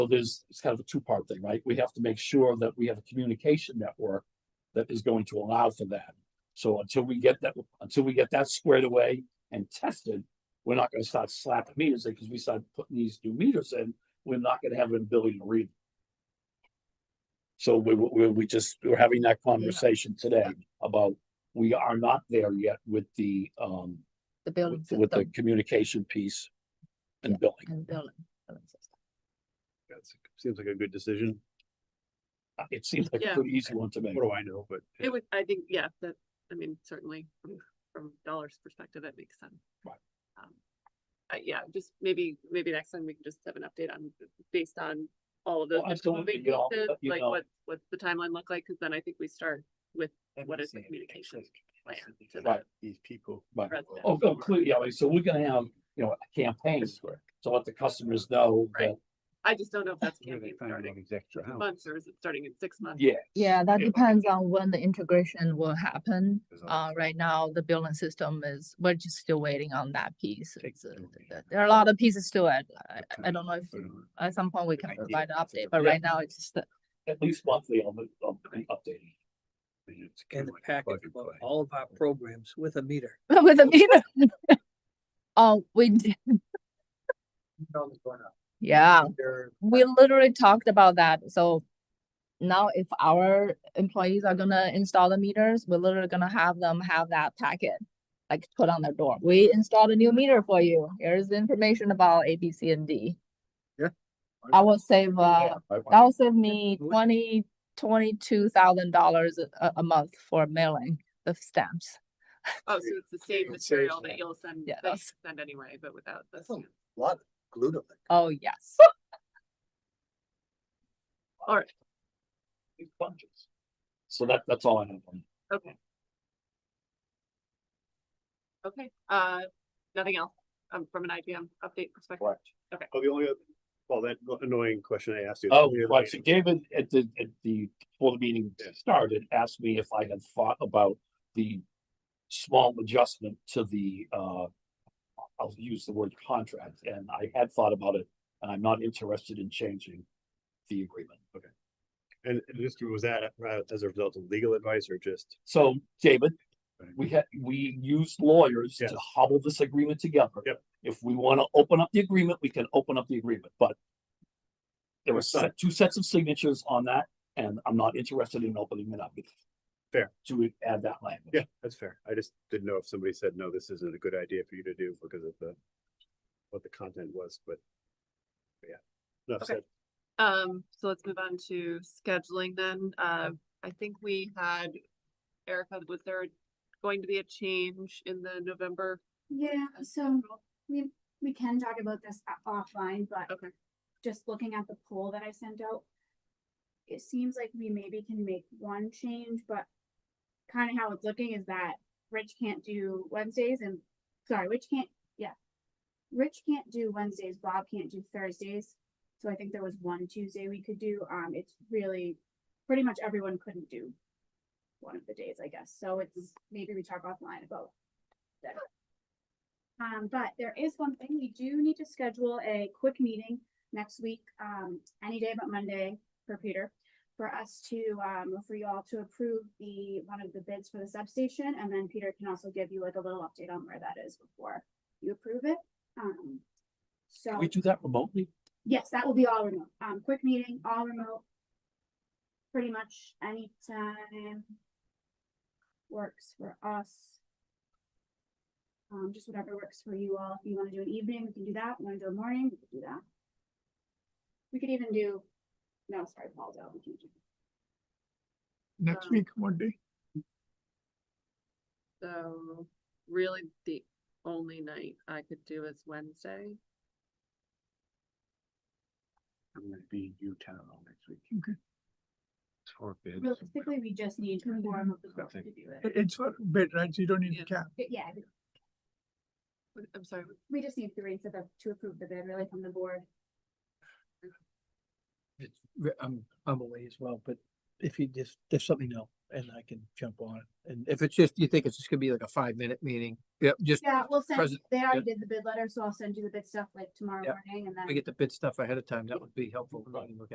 So there's, it's kind of a two-part thing, right? We have to make sure that we have a communication network that is going to allow for that. So until we get that, until we get that squared away and tested, we're not gonna start slapping meters in, because we start putting these new meters in, we're not gonna have an ability to read. them. So we, we, we just, we're having that conversation today about, we are not there yet with the, um, the building with, with the system communication piece and Yeah. billing. and building. building system. That's, seems like a good decision. Uh, It seems like a Yeah. pretty easy one to make. What do I know, but It would, I think, yeah, that, I mean, certainly from- from dollars perspective, it makes sense. Right. Um, Uh, yeah, just maybe, maybe next time we can just have an update on, based on all of those. Well, absolutely, moving you know, pieces, but, you Like know- what, what's the timeline look like? Cause then I think we start what is the communication plan to Right. the These people. Right. resident. Oh, completely, yeah, so we're gonna have, you know, a campaign to let the customers know that, Right. I just don't know if that's Where they campaign find all starting these extra in houses. months or is it starting in six months? yeah, Yeah, Mm. that Yeah. depends on when the integration will happen. There's all um, Uh, right now, the building system is, we're just still waiting on that piece. Takes It's, uh, longer. th- There are a lot of pieces still. I, I- Okay. I don't know if Put it on. at some point we can idea. provide an update, Yeah. but right now it's just, the- at least monthly on the, on the updating. It's kinda in the like package plug and about play. all of our programs with a meter. with a meter. Oh, we, did- yeah. They're- we literally talked about that. So now if our employees are gonna install the meters, we're literally gonna have them have that packet like put on their door. We installed a new meter for you. Here's the information about A, B, C, and D. Yeah. I will save uh Right. that will save me Absolutely. twenty, twenty-two thousand dollars a, a month for mailing the stamps. Oh, so it's the same It saves material that. that you'll send, Yeah, that you that's- send anyway, but without. the That's a stamp. lot glued on it. Oh, yes. These budgets. So that, that's all I have on. Okay. Okay, uh, nothing else, um, from an IBM update perspective? Oh, the only, other- well, that annoying question I asked you. Oh, Yeah, right, so David, at the, at the, before the meeting started, asked me if I had thought about the small adjustment to the, uh, I'll use the word contract, and I had thought about it, and I'm not interested in changing the agreement. Okay. And and just was that uh, as a result of legal advice or just? So, David, Right. we had, we used lawyers to Yes. hobble this agreement together. Yep. If we wanna open up the agreement, we can open up the agreement, but there were set, two sets of signatures on that, and I'm not interested in opening it up. Fair. To add that language. Yeah, that's fair. I just didn't know if somebody said, no, this isn't a good idea for you to do because of the, what the content was, but. but Yeah. Enough Okay. said. Um, so let's move on to scheduling then. Uh, I think we had, Erica, was there going to be a change in the November? Yeah, uh, so schedule? we, we can talk about this o- offline, but Okay, just looking at the poll that I sent out. It seems like we maybe can make one change, but kind of how it's looking is that Rich can't do Wednesdays and, sorry, Rich can't, yeah. Rich can't do Wednesdays, Bob can't do Thursdays, so I think there was one Tuesday we could do, um, it's really, pretty much everyone couldn't do. One of the days, I guess, so it's, maybe we talk offline about that. Um, but there is one thing, we do need to schedule a quick meeting next week, um, any day but Monday for Peter. For us to, um, for you all to approve the, one of the bids for the substation, and then Peter can also give you like a little update on where that is before you approve it. Um, so, Can we do that remotely? yes, that will be all remote, um, quick meeting, all remote. Pretty much anytime works for us. Um, just whatever works for you all. If you wanna do an evening, we can do that. Wanna do a morning, we can do that. We could even do, no, sorry, Paul's out. We can't do- Next week, Monday. so really the only night I could do is Wednesday. I'm gonna be in Utah next week. Okay. It's for bids. Realistically, we just need a form of the group to Nothing. do it. It's for bid, right? So you don't need to Yeah. cap. But Yeah, What- I'm sorry, what- we just need three to the, to approve the bid really from the board. I'm, I'm away as well, but if you just, there's something else, and I can jump on it. And if it's just, you think it's just gonna be like a five minute meeting? Yep, just, Yeah, we'll send, Present- they already did the bid letter, so I'll send you the bid stuff like tomorrow Yep. morning and then. we get the bid stuff ahead of time. That would be helpful. for me to look at.